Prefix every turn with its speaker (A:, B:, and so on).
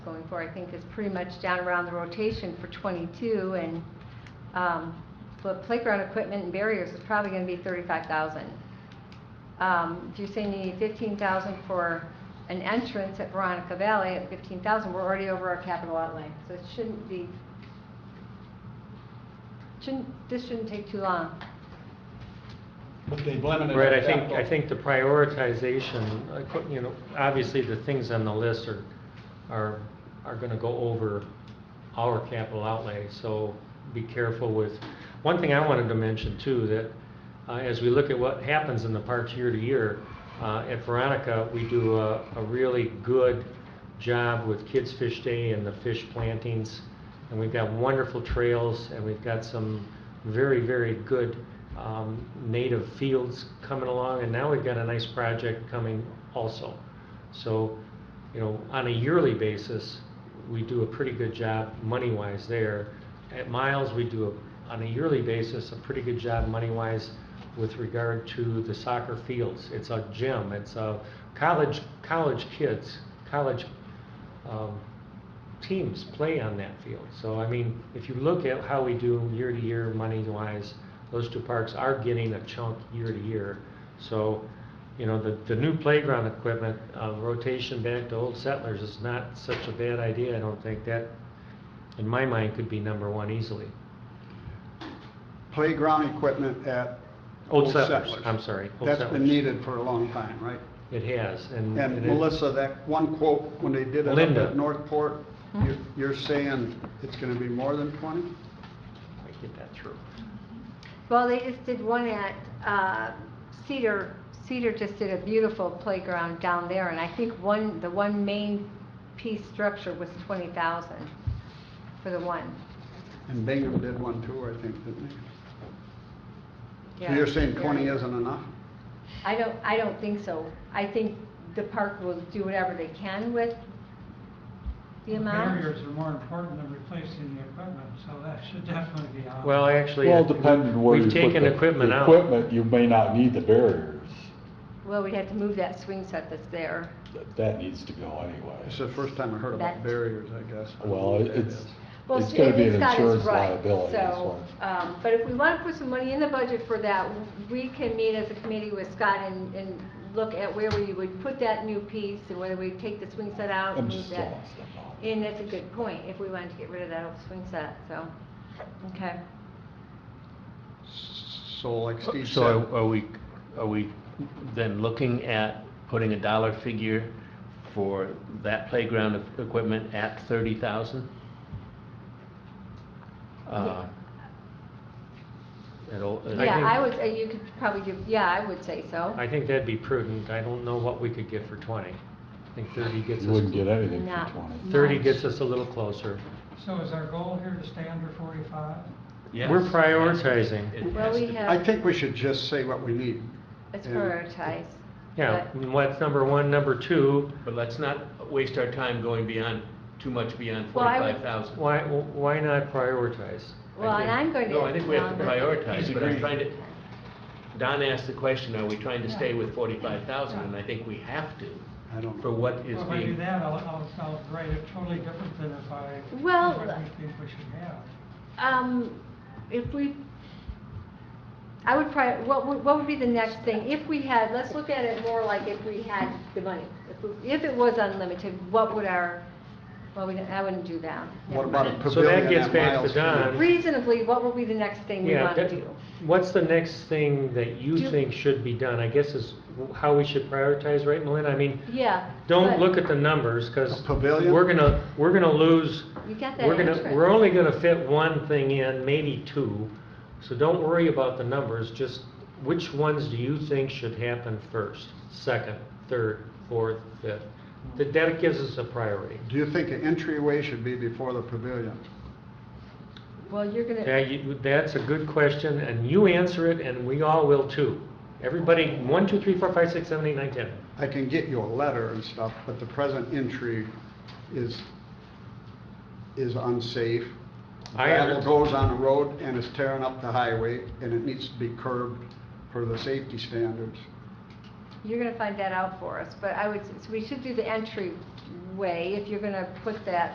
A: going for, I think, is pretty much down around the rotation for 22, and, um, but playground equipment and barriers is probably gonna be 35,000. Um, If you're saying you need 15,000 for an entrance at Veronica Valley at 15,000, we're already over our capital outlay, so it shouldn't be, shouldn't, this shouldn't take too long.
B: But they've limited.
C: Right,
B: our
C: I think,
B: capital.
C: I think the prioritization, I put- you know, obviously the things on the list are, are, are gonna go over our capital outlay, so be careful with. One thing I wanted to mention too, that, uh, as we look at what happens in the parks year to year, uh, at Veronica, we do a, a really good job with Kids Fish Day and the fish plantings. And we've got wonderful trails and we've got some very, very good um, native fields coming along. And now we've got a nice project coming also. So, you know, on a yearly basis, we do a pretty good job money-wise there. At Miles, we do, a- on a yearly basis, a pretty good job money-wise with regard to the soccer fields. It's a gym, it's a college, college kids, college um, teams play on that field. So, I mean, if you look at how we do year-to-year money-wise, those two parks are getting a chunk year-to-year. So, you know, the, the new playground equipment, uh, rotation back to Old Settlers is not such a bad idea, I don't think. That, in my mind, could be number one easily.
D: playground equipment at
C: Old Settlers, I'm sorry, Old
D: That's been
C: Settlers.
D: needed for a long time, right?
C: It has, and.
D: And
C: it-
D: Melissa, that one quote, when they did it up
C: Linda.
D: at Northport, you're, you're saying it's gonna be more than twenty?
C: I get that through.
A: Well, they just did one at uh, Cedar, Cedar just did a beautiful playground down there, and I think one, the one main piece structure was 20,000 for the one.
D: And Bingham did one too, I think, didn't they? So
A: Yeah.
D: you're saying twenty isn't enough?
A: I don't, I don't think so. I think the park will do whatever they can with the amount.
E: Barriers are more important than replacing the equipment, so that should definitely be on.
C: Well, actually.
F: Well,
C: it-
F: depending on where you
C: We've
F: put the.
C: taken equipment out.
F: Equipment, you may not need the barriers.
A: Well, we'd have to move that swing set that's there.
F: That- That needs to go anyway.
D: It's the first time I heard
A: That-
D: about barriers, I guess. I don't know
F: Well,
D: what that
F: it's,
D: is.
A: Well,
F: it's
A: see,
F: gonna
A: I
F: be
A: think
F: an
A: Scott is
F: insurance
A: right.
F: liability, that's
A: So,
F: why.
A: um, but if we want to put some money in the budget for that, we can meet as a committee with Scott and, and look at where we would put that new piece and whether we take the swing set out and
F: I'm
A: move
F: just
A: that.
F: lost. I'm lost.
A: And that's a good point, if we wanted to get rid of that old swing set, so, okay.
D: So like Steve
G: So are-
D: said,
G: are we, are we then looking at putting a dollar figure for that playground e- equipment at thirty thousand? Uh,
A: Yeah.
C: I
A: Yeah,
C: think-
A: I would, uh, you could probably give, yeah, I would say so.
C: I think that'd be prudent. I don't know what we could get for twenty. I think thirty gets us.
F: You wouldn't get anything
A: Not-
F: for twenty.
C: Thirty
A: much.
C: gets us a little closer.
E: So is our goal here to stay under forty-five?
C: We're prioritizing.
A: Well, we have-
D: I think we should just say what we need.
A: It's
D: And-
A: prioritized.
C: Yeah,
A: but-
C: and what's number one, number two,
G: But let's not waste our time going beyond, too much beyond
A: Well, I would-
G: forty-five thousand.
C: why, why not prioritize?
A: Well, and I'm going to.
G: No, I think we have to
A: um,
G: prioritize, but I'm trying to, Don asked the question, are we trying to stay with forty-five thousand? And I think we have to,
D: I don't know.
G: for what is being.
E: Well, if I do that, I'll, I'll, I'll write it totally different than if I,
A: Well,
E: what we think we should have.
A: Um, if we, I would probably, what would, what would be the next thing? If we had, let's look at it more like if we had the money. If, we- if it was unlimited, what would our, well, we, don't- I wouldn't do that.
D: What about a
C: So that
D: pavilion
C: gets
D: at
C: back to
D: Miles
C: Don.
D: Field?
A: Reasonably, what would be the next thing we
C: Yeah,
A: want to
C: that-
A: do?
C: what's the next thing that
A: Do-
C: you think should be done? I guess is how we should prioritize, right, Melinda? I mean,
A: Yeah.
C: don't
A: but
C: look at the numbers, because
D: A pavilion?
C: we're gonna, we're gonna lose
A: You got that
C: We're gonna,
A: entrance.
C: we're only gonna fit one thing in, maybe two, so don't worry about the numbers, just which ones do you think should happen first, second, third, fourth, fifth? That, that gives us a priority.
D: Do you think an entryway should be before the pavilion?
A: Well, you're gonna,
C: Yeah, you, that's a good question, and you answer it, and we all will too. Everybody, one, two, three, four, five, six, seven, eight, nine, ten.
D: I can get you a letter and stuff, but the present entry is, is unsafe.
C: I
D: Gravel
C: under-
D: goes on the road and is tearing up the highway, and it needs to be curbed for the safety standards.
A: you're gonna find that out for us, but I would, so we should do the entry way, if you're gonna put that